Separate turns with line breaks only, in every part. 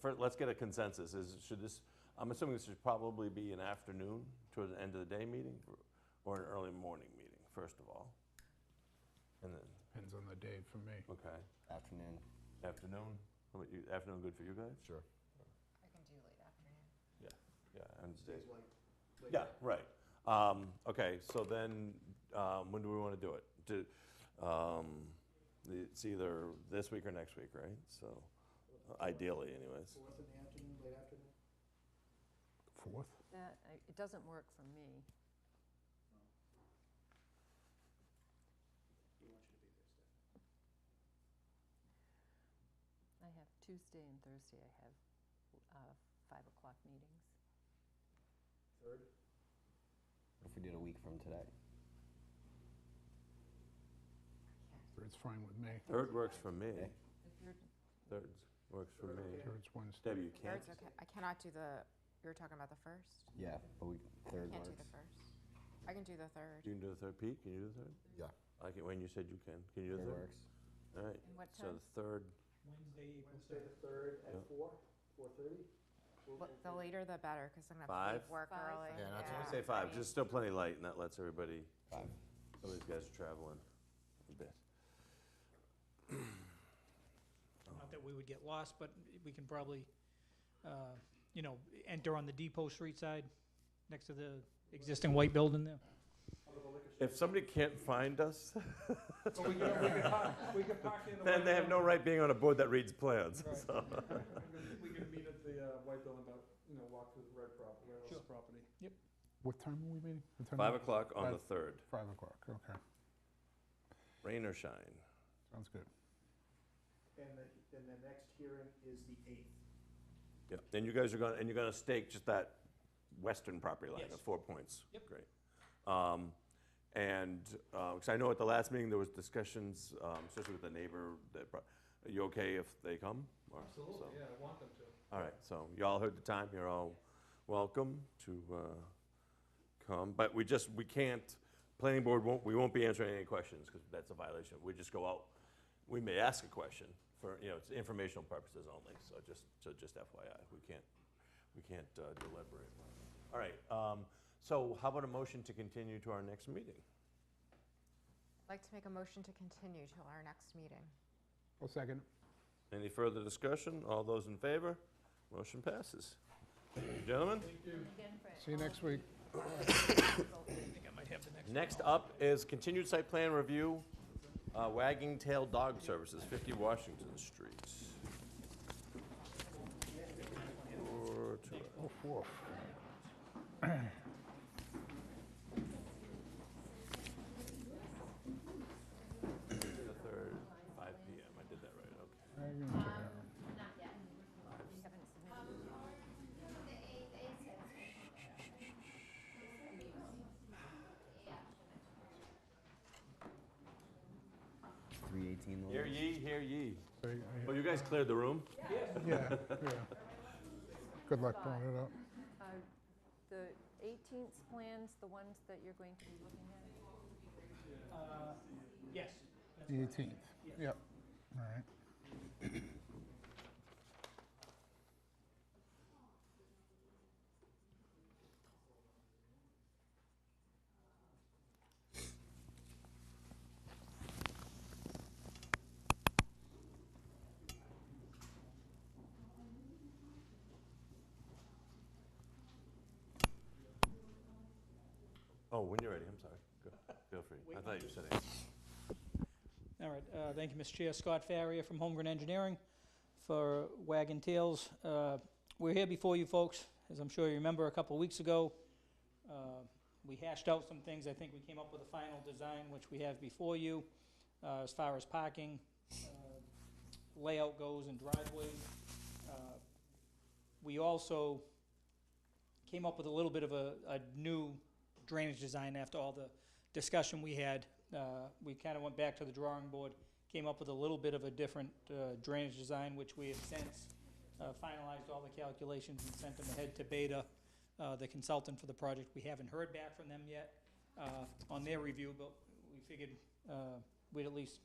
first, let's get a consensus, is, should this, I'm assuming this should probably be an afternoon toward the end of the day meeting, or an early morning meeting, first of all? And then,
Depends on the day for me.
okay,
Afternoon.
afternoon, How about you- afternoon good for you guys?
Sure.
I can do late afternoon.
Yeah, yeah, and
Stays late. late
Yeah,
night.
right. Um, okay, so then, um, when do we want to do it? Do, um, it's either this week or next week, right? So ideally anyways.
Fourth in the afternoon, late afternoon?
Fourth?
That, I- it doesn't work for me.
We want you to be there, Stephanie.
I have Tuesday and Thursday, I have uh, 5 o'clock meetings.
Third?
What if we did a week from today?
It's fine with me.
Third works for me.
Okay.
If you're,
Third works for me.
It's Wednesday.
Debbie, you can't?
Third's okay. I cannot do the, you were talking about the first?
Yeah, but we third
Can't do the
works.
first. I can do the third.
You can do the third, Pete, can you do the third?
Yeah.
I can, Wayne, you said you can. Can you do
Third
the third?
works.
All right.
And what
So
time?
the third,
Wednesday, April
Wednesday, the
3rd.
third
Yeah.
at four, four-thirty?
But The later the better, because I'm gonna have to leave
Five?
work
Five.
early.
Yeah,
I would say five, just still plenty light and that lets everybody,
Five.
some of these guys are traveling a bit.
Not that we would get lost, but we can probably, uh, you know, enter on the Depot Street side, next to the existing white building there.
If somebody can't find us,
We could, we could park in the.
then they have no right being on a board that reads plans.
We can meet at the uh, White Building, about, you know, walk through the red prop, Red House
Sure.
property.
What time are we meeting? What time
Five
are-
o'clock on the
Five-
third,
Five o'clock, okay.
rain or shine.
Sounds good.
And the, and the next hearing is the eighth.
Yeah, and you guys are gonna, and you're gonna stake just that western property line
Yes.
at four points?
Yep.
Great. Um, and, uh 'cause cause I know at the last meeting, there was discussions, um, especially with the neighbor, that, brought- are you okay if they come? Or- so-
yeah, I want them to.
All right, so y'all heard the time, you're all welcome to uh, come, but we just, we can't, planning board won't, we won't be answering any questions, because that's a violation. We just go out, we may ask a question for, you know, it's informational purposes only, so just, so just FYI, we can't, we can't uh, deliberate. All right, um, so how about a motion to continue to our next meeting?
I'd like to make a motion to continue till our next meeting.
Well, second.
Any further discussion? All those in favor? Motion passes. Gentlemen?
Again, Fran.
See you next week.
I think I might have the next.
Next up is continued site plan review, uh, Wagging Tail Dog Services, 50 Washington Street. Four to-
Four.
The third, 5 PM, I did that right, okay.
You haven't submitted.
Three eighteen.
Hear ye, hear ye.
So, I-
Well, you guys cleared the room?
Yeah, yeah. Good luck pulling it up.
Uh, The 18th plans, the ones that you're going to be looking at?
Yes.
The eighteenth. Yep. All right.
Oh, when you're ready, I'm sorry. Go- Feel free. I thought you said it.
All right, uh, thank you, Mr. Chair. Scott Farrier from Holmgren Engineering for Wagon Tails. Uh, We're here before you folks, as I'm sure you remember, a couple weeks ago. Uh, We hashed out some things. I think we came up with a final design, which we have before you, uh, as far as parking, uh, layout goes and driveways. Uh, We also came up with a little bit of a, a new drainage design after all the discussion we had. Uh, we kind of went back to the drawing board, came up with a little bit of a different uh, drainage design, which we have since uh, finalized all the calculations and sent them ahead to Beta, uh, the consultant for the project. We haven't heard back from them yet uh, on their review, but we figured uh, we'd at least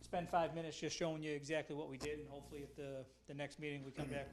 spend five minutes just showing you exactly what we did, and hopefully at the, the next meeting we come back